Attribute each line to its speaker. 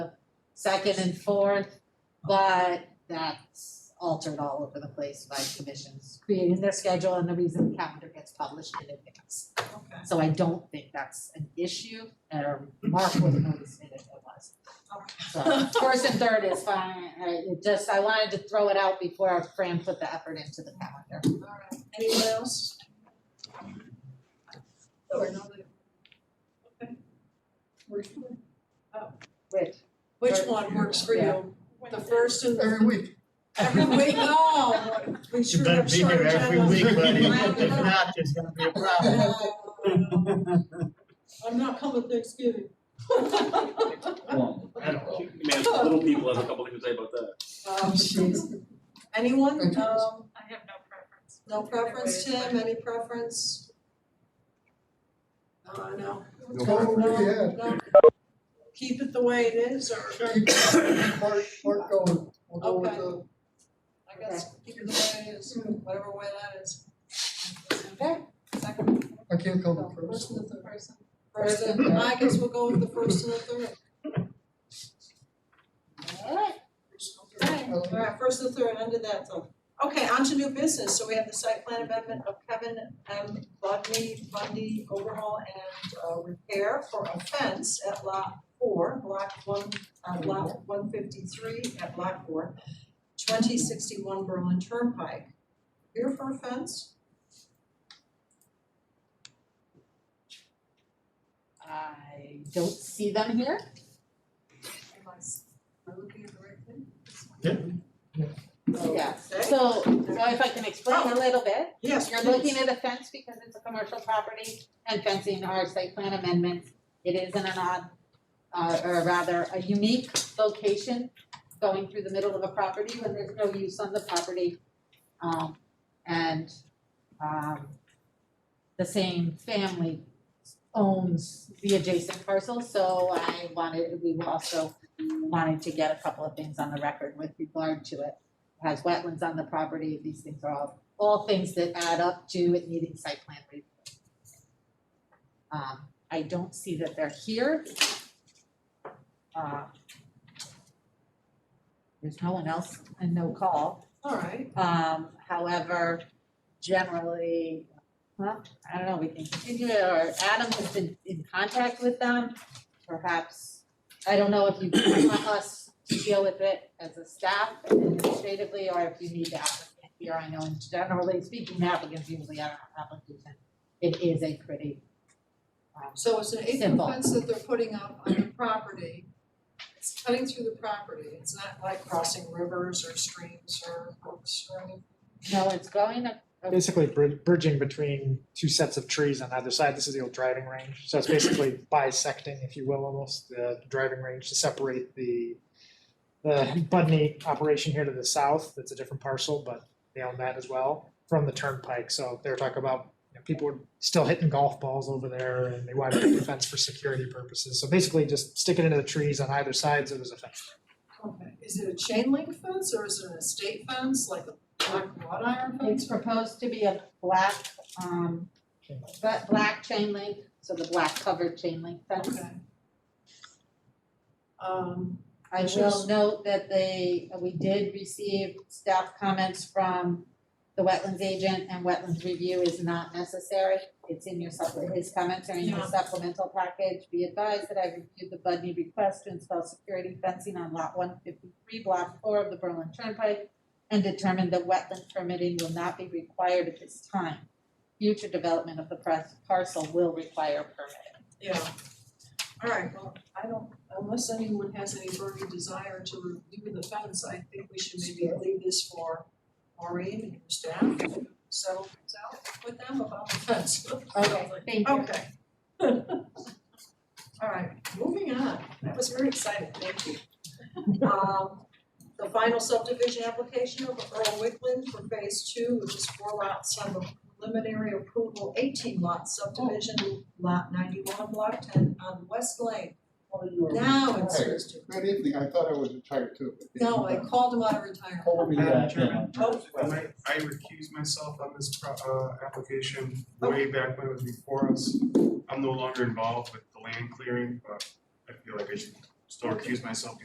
Speaker 1: second and fourth, but that's altered all over the place by commissions creating their schedule and the reason the calendar gets published in advance.
Speaker 2: Okay.
Speaker 1: So I don't think that's an issue, or Mark would have noticed it if it was. So first and third is fine, I it just, I wanted to throw it out before Fran put the effort into the calendar.
Speaker 2: Alright, anyone else? Or another? Okay.
Speaker 1: Which,
Speaker 2: Which one works for you? The first and the,
Speaker 3: Every week.
Speaker 2: every week, oh, we
Speaker 4: You
Speaker 2: sure
Speaker 4: better
Speaker 2: have
Speaker 4: be
Speaker 2: short
Speaker 4: here every week,
Speaker 2: agendas.
Speaker 4: buddy.
Speaker 2: Wow.
Speaker 4: If not, there's gonna be a problem.
Speaker 2: No. I'm not coming Thanksgiving.
Speaker 4: I don't know.
Speaker 5: Man, little people has a couple things to say about that.
Speaker 2: Um, jeez. Anyone, um,
Speaker 6: I have no preference.
Speaker 2: no preference, Tim, any preference? Uh, no.
Speaker 3: No
Speaker 2: Oh,
Speaker 3: preference, yeah.
Speaker 2: no, Keep it the way it is, or
Speaker 3: Keep, keep Mark, Mark going. We'll go with the,
Speaker 2: I guess, keep it the way it is, whatever way that is.
Speaker 1: Okay.
Speaker 2: Second,
Speaker 3: I can't come
Speaker 2: no,
Speaker 3: in first.
Speaker 2: first and the third. First and, I guess we'll go with the first and the third.
Speaker 1: alright,
Speaker 3: Uh,
Speaker 2: Alright, first and the third, under that though. Okay, on to new business, so we have the site plan amendment of Kevin M. Bundy, Bundy overhaul and uh, repair for a fence at lot four, block one, uh, lot one fifty-three at lot four, twenty sixty-one Berlin Turnpike. Here for a fence?
Speaker 1: I don't see them here.
Speaker 2: Am I, am I looking at the right thing?
Speaker 1: Yeah.
Speaker 2: Okay.
Speaker 1: So, so if I can explain a little bit,
Speaker 2: Yes,
Speaker 1: you're looking at a fence because it's a commercial property and fencing are site plan amendments. It is in an odd, uh, or rather a unique location going through the middle of a property when there's no use on the property. Um, and, um, the same family owns the adjacent parcel, so I wanted, we also wanted to get a couple of things on the record with regard to it. It Has wetlands on the property, these things are all all things that add up to it needing site plan review. Um, I don't see that they're here. Uh, There's no one else and no call.
Speaker 2: Alright,
Speaker 1: Um, however, generally, well, I don't know, we can continue it, or Adam has been in contact with them. Perhaps, I don't know if you want us to deal with it as a staff administratively, or if you need the applicant here, I know in generally speaking, applicants usually are application. It is a pretty, um,
Speaker 2: so it's an eight foot
Speaker 1: Simple.
Speaker 2: fence that they're putting up on the property. It's cutting through the property, it's not like crossing rivers or streams or brooks or anything.
Speaker 1: no, it's going up.
Speaker 7: basically bri- bridging between two sets of trees on either side. This is the old driving range. So it's basically bisecting, if you will, almost the driving range to separate the the Budney operation here to the south. That's a different parcel, but they own that as well from the turnpike. So they're talking about you know, people were still hitting golf balls over there and they wanted the fence for security purposes. So basically just stick it into the trees on either side so there's a fence.
Speaker 2: Okay, is it a chain link fence or is it an estate fence, like a black wrought iron
Speaker 1: It's
Speaker 2: fence?
Speaker 1: proposed to be a black, um, but black chain link, so the black covered chain link fence.
Speaker 2: Okay. Um,
Speaker 1: I
Speaker 2: Which
Speaker 1: will
Speaker 2: is-
Speaker 1: note that they, uh, we did receive staff comments from the wetlands agent and wetlands review is not necessary. It's in your supple, his comments are in your
Speaker 2: Yeah.
Speaker 1: supplemental package. Be advised that I reviewed the Budney request to install security fencing on lot one fifty-three, block four of the Berlin Turnpike and determined that wetland permitting will not be required at this time. Future development of the press parcel will require permitting.
Speaker 2: yeah, alright, well, I don't, unless anyone has any burning desire to review the fence, I think we should maybe leave this for Maureen and her staff. to Settle things out with them about the fence.
Speaker 1: Thank you.
Speaker 2: Okay. All right, moving on, that was very exciting, thank you. Um, the final subdivision application of Earl Wickland for phase two, which is four lots on the preliminary approval, eighteen lot subdivision, lot ninety-one, block ten, on West Lane.
Speaker 3: oh, you were
Speaker 2: Now it's
Speaker 3: retired.
Speaker 2: phase two.
Speaker 3: Good evening, I thought I was retired too. but-
Speaker 2: No, I called him out of retirement.
Speaker 3: Told me
Speaker 8: Madam
Speaker 3: that, yeah.
Speaker 8: Chairman,
Speaker 2: Oh,
Speaker 8: and I, I recuse myself on this pro- uh, application way back when it was before us. I'm no longer involved with the land clearing, but I feel like I should still recuse myself